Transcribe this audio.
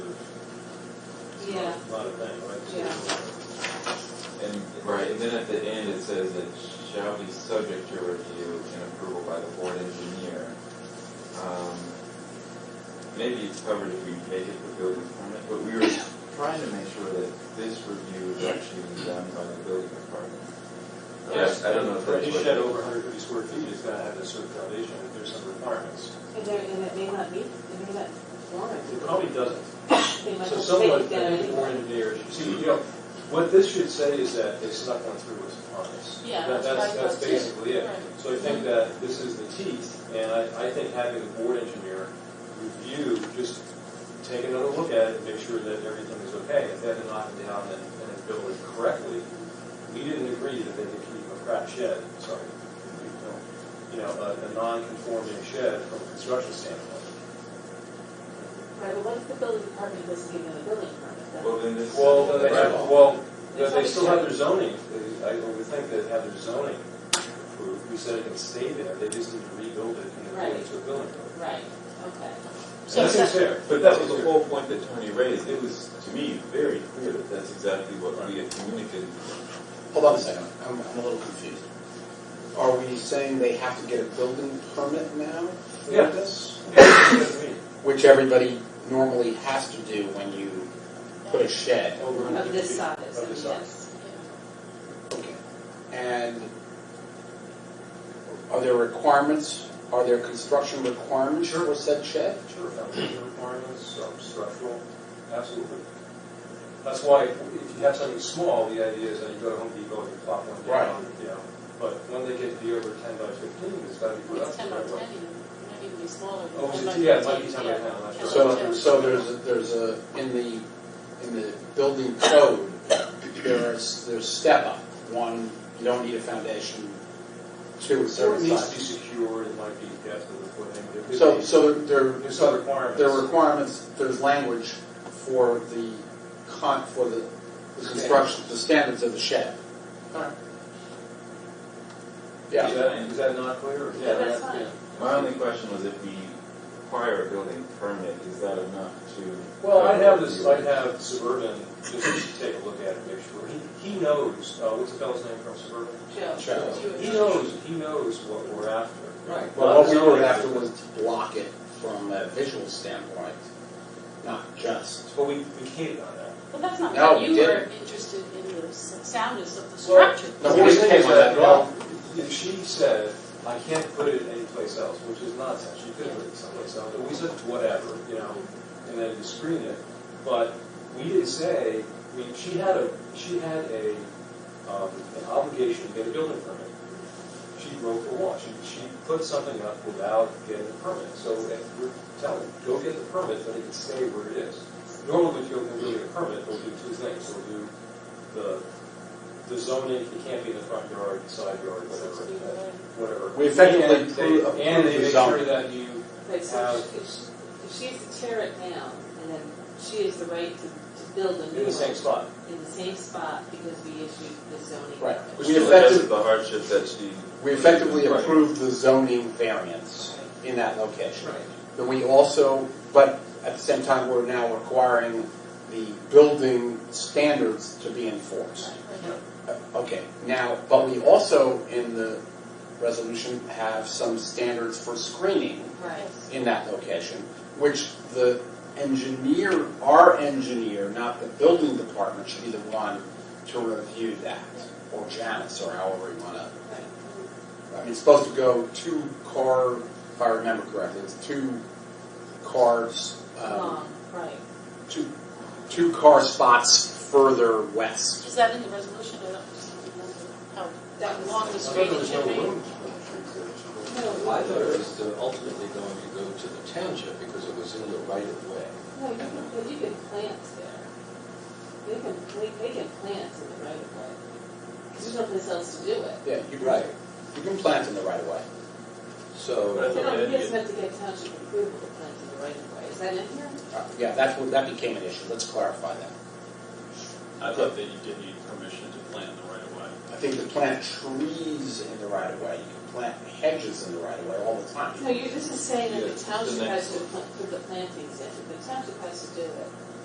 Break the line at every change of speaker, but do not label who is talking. Yeah,
a lot of things, right?
yeah.
And, right, and then at the end, it says it shall be subject to review and approval by the board engineer. Um, Maybe it's covered if we make it the building permit, but we were trying to make sure that this review is actually being done by the building department. Yes, I don't know if
For
that's
any
what-
shed over 150 square feet, it's got to have a certain foundation, if there's some requirements.
And there, and it may not meet, it may not warrant.
It probably doesn't.
They might
Oh. So
just
someone,
take
I
it down
think,
anyway.
born engineers, you see, you know, what this should say is that they snuck one through us on us.
Yeah,
That-
that's
That's,
what I
that's
thought too.
basically it.
Right.
So I think that this is the teeth, and I, I think having the board engineer review, just take another look at it, and make sure that everything is okay. If they have to knock it down and, and build it correctly, we didn't agree that they could keep a crap shed, sorry, you know, a, a non-conforming shed from a construction standpoint.
Right, but what if the building department doesn't give them a building permit then?
Well, then this.
Well, then they have, well,
They
they still have their
probably
zoning, They- I would think they'd have their zoning approved, we said it can stay there, they just need to rebuild it and then it to a building. code.
Right,
Okay.
And
So
that seems
it's not-
fair.
But that was the whole point that Tony raised. It was, to me, very clear that that's exactly what we had communicated.
Hold on a second, I'm, I'm a little confused. Are we saying they have to get a building permit now for
Yeah.
this?
Yeah.
Which everybody normally has to do when you put a shed.
Over a
Of
hundred
this
feet.
size,
Of this size.
yes.
Okay. And are there requirements, are there construction requirements
Sure.
for said shed?
Sure, foundation requirements, some structural, absolutely. That's why if if you have something small, the idea is that you go to Home Depot and you plop one down, you know. But when they get to be over ten by fifteen, it's gotta be put up
It's
the
ten by
right
ten,
way.
not even be smaller.
Oh,
Ten
is it-
by
yeah, it might be
15,
10 by
yeah.
10, that's right.
So, so there's, a- there's a, in the, in the building code, there's, there's step up. One, you don't need a foundation. Two, it's
So it
certain
needs
size.
to be secured, it might be depth of the footing. it could
So,
be-
so there,
There's some
so
requirements.
there are requirements, there's language for the con, for the the construction, the standards of the shed.
Is
Yeah,
that, is that not clear? or-
Yeah, that's fine.
My only question was if we require a building permit, is that enough to?
Well, I'd have this, I'd have Suburban just take a look at it, make sure. He, he knows, uh, what's the fellow's name from Suburban?
Joe.
Joe.
He knows, he knows what we're after.
right.
Not
But what we
zoning.
were after was to block it from a visual standpoint, not just.
But we, we can't on that.
But that's not
No,
what you
we
were
didn't.
interested in, the s- soundness of the
Well,
structure.
No,
The
we
thing
came
is
on that,
well, She said, I can't put it anyplace else, which is nonsense, she could put it someplace else, but we said whatever, you know, and then you screen it. But we didn't say, I mean, she had a, she had a, um, an obligation to get a building permit. She broke the law, she, she put something up without getting a permit, so if we're telling, her, go get the permit, but it can stay where it is. Normally, if you go and get a permit, we'll do two things, we'll do the the zoning, it can't be in the front yard, side yard, whatever, whatever.
We effectively
And they-
approve-
And they
approve the
make sure
zoning.
that you, Uh,
Right, so if she- if she has to tear it down, and then she has the right to, to build a new
in the same
one
spot.
in the same spot because we issued the zoning.
Right.
Which
We
still
effective-
addresses the hardship that she.
We effectively
Right.
approved the zoning variance in that location.
Right.
Then we also, but at the same time, we're now requiring the building standards to be enforced. Uh, Okay, now, but we also in the resolution have some standards for screening
Right.
in that location, which the engineer, our engineer, not the building department, should be the one to review that, or Janice, or however you want to it's supposed to go two car, if I remember correctly, it's two cars, um,
Long, right.
two, two car spots further west.
Is that in the resolution, I don't just remember how,
That
that
was-
long the
I thought
street
there was no
should be?
room. for trees there.
No,
Well, I thought it was uh, ultimately going to go to the township because it was in the right of way.
No, you can, but you can plant there. They can, they, they can plant in the right of way. Because there's no place else to do it.
Yeah, you can,
Right.
you can plant in the right of way.
So,
You don't, you just have to get township approval to plant in the right of way. Is that in here?
Uh, Yeah, that's what, that became an issue, let's clarify that.
I thought that you did need permission to plant in the right of way.
I think you can plant trees in the right of way, you can plant hedges in the right of way all the time.
No, you, this is saying that
Yeah,
the township
the
has
next
to put put the plantings in. The township has to do it.